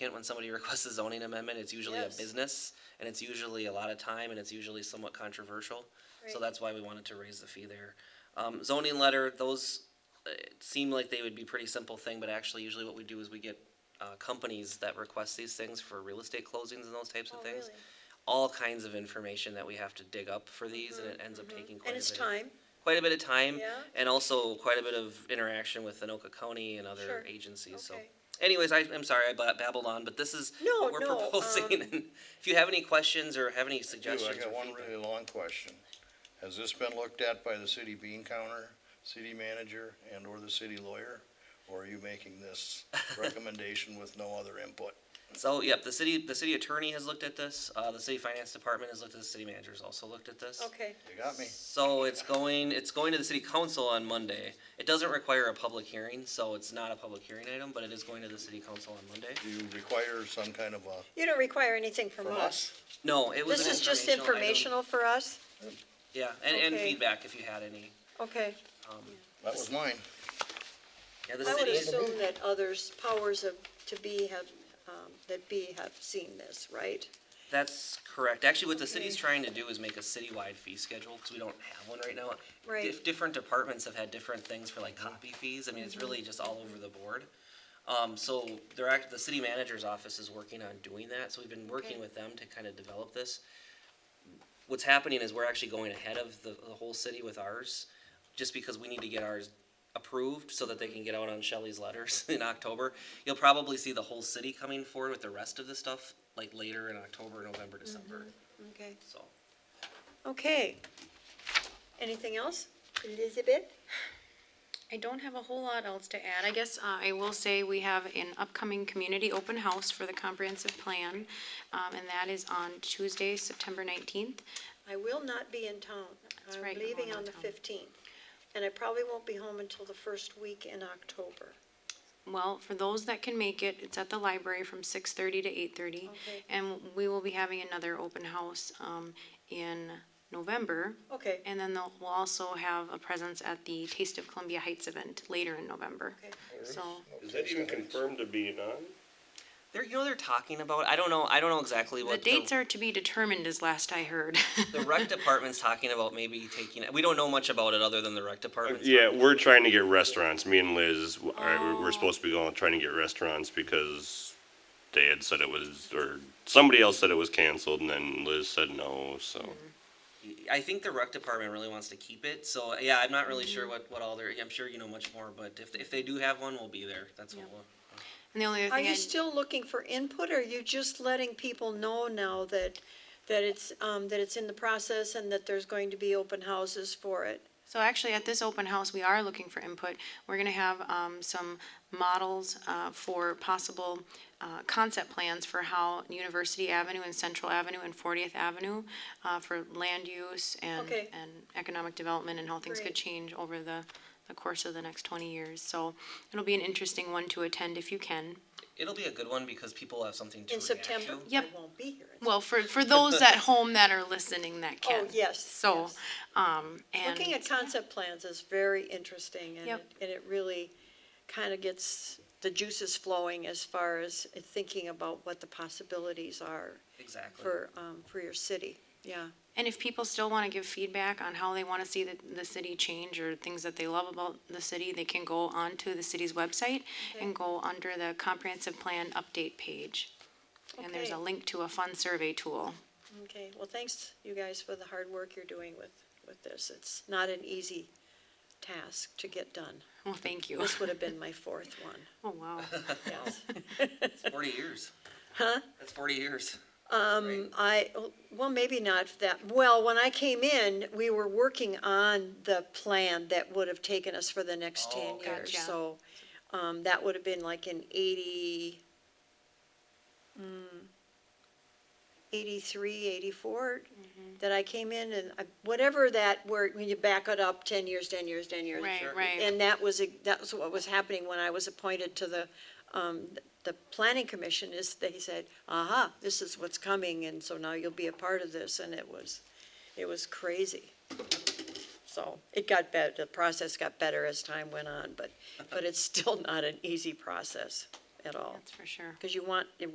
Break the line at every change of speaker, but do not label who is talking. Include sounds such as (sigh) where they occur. applicant, when somebody (laughs) requests a zoning amendment, it's usually a
Yes.
business, and it's usually a lot of time, and it's usually somewhat controversial. So
Right.
that's why we wanted to raise the fee there. Um, zoning letter, those uh, seem like they would be pretty simple thing, but actually usually what we do is we get uh, companies that request these things for real estate closings and those types of
Oh,
things.
really? Mm-hmm,
All kinds of information that we have to dig up for these, and it ends up taking quite a bit
And it's
of
time,
quite a bit of time
Yeah.
and also quite a bit of interaction with Anoka County and other
Sure.
agencies. So,
Okay.
anyways, I, I'm sorry I ba- babbled on, but this is
No,
what we're
no, um,
proposing. (laughs) and if you have any questions or have any
Ooh, I
suggestions,
got
or
one
feedback-
really long question. Has this been looked at by the city bean counter, city manager, and/or the city lawyer? Or are you
(laughs)
making this recommendation with no other input?
so yep, the city the city attorney has looked at this. Uh, the city finance department has looked at. The city manager has also looked at this.
okay.
You got me?
So it's going it's going to the city council on Monday. It doesn't require a public hearing, so it's not a public hearing item, but it is going to the city council on Monday.
Do you require some kind of a,
You don't require anything from
from
us.
us?
No, it was
This
an
is just
item.
informational for us?
Yeah, and, and
Okay.
feedback if you had any.
Okay.
Um,
That was mine.
Yeah, the
I would
city,
assume that others, powers of, to be have, um, that be have seen this, right?
that's correct. Actually, what the city's
Okay.
trying to do is make a citywide fee schedule, because we don't have one right now.
Right.
Dif- Different departments have had different things for like copy fees. I mean,
Mm-hmm.
it's really just all over the board. Um, so they're act, the city manager's office is working on doing that, so we've been working
Okay.
with them to kind of develop this. What's happening is we're actually going ahead of the, the whole city with ours, just because we need to get ours approved so that they can get out on Shelley's letters (laughs) in October. You'll probably see the whole city coming forward with the rest of the stuff like later in October, November, December,
Mm-hmm.
Okay.
so.
Okay. Anything else? Elizabeth?
I don't have a whole lot else to add. I guess uh, I will say we have an upcoming community open house for the comprehensive plan, um, and that is on Tuesday, September 19th.
I will not be in town.
That's right,
I'm
you're
leaving
going
on the
out of town.
fifteenth, and I probably won't be home until the first week in October.
Well, for those that can make it, it's at the library from 6:30 to 8:30.
Okay.
And we will be having another open house um, in November.
Okay,
And then they'll- we'll also have a presence at the Taste of Columbia Heights event later in November.
okay.
So
Is that even confirmed to being on?
They're, you know, they're talking about, I don't know, I don't know exactly
the
what.
dates are to be determined, is last I heard. (laughs)
The rec department's talking about maybe taking, we don't know much about it other than the rec department.
Yeah, we're trying to get restaurants. Me and Liz, all right, we're- we're supposed to be going, trying to get restaurants because they had said it was, or somebody else said it was canceled and then Liz said no, so.
I think the rec department really wants to keep it, so, yeah, I'm not really
Mm-hmm.
sure what, what all their, I'm sure you know much more, but if, if they do have one, we'll be there, that's what
Yeah.
we'll.
And the only other
Are
thing
you
I'd-
still looking for input, or are you just letting people know now that, that it's, um, that it's in the process and that there's going to be open houses for it?
So actually, at this open house, we are looking for input. We're gonna have um, some models uh, for possible uh, concept plans for how University Avenue and Central Avenue and Fortieth Avenue uh, for land use and,
Okay.
and economic development and how things
Great.
could change over the, the course of the next twenty years. So it'll be an interesting one to attend if you can.
It'll be a good one because people will have something to
In
react to.
September?
Yep.
I won't be here. in-
Well, for,
(laughs)
for those at home that are listening that
Oh,
can.
yes.
So,
yes.
um, and.
Looking at concept plans is very interesting, and,
Yep.
it- and it really kind of gets the juices flowing as far as thinking about what the possibilities are
Exactly.
for, um, for your city, yeah.
And if people still want to give feedback on how they want to see the, the city change or things that they love about the city, they can go onto the city's website and go under the comprehensive plan update page. And there's a
Okay.
link to a fun survey tool. (laughs)
Okay, well, thanks, you guys, for the hard work you're doing with, with this. It's not an easy task to get done.
Well, thank you.
This would have been my fourth one,
(laughs) Oh,
(laughs)
wow.
yes.
(laughs) Forty years.
Huh?
That's forty years.
Um, I, well, maybe not that, well, when I came in, we were working on the plan that would have taken us for the next ten
Oh,
years,
Gotcha.
so, um, that would have been like in eighty, mm, eighty-three, eighty-four, that I came in, and I- whatever that, where, when you back it up, ten years, ten years, ten years.
Right, right.
And that was, that was what was happening when I was appointed to the, um, the planning commission is, they said, aha, this is what's coming, and so now you'll be a part of this, and it was, it was crazy. So it got better, the process got better as time went (laughs) on, but, but it's still not an easy process at all.
That's for sure.
Because you want,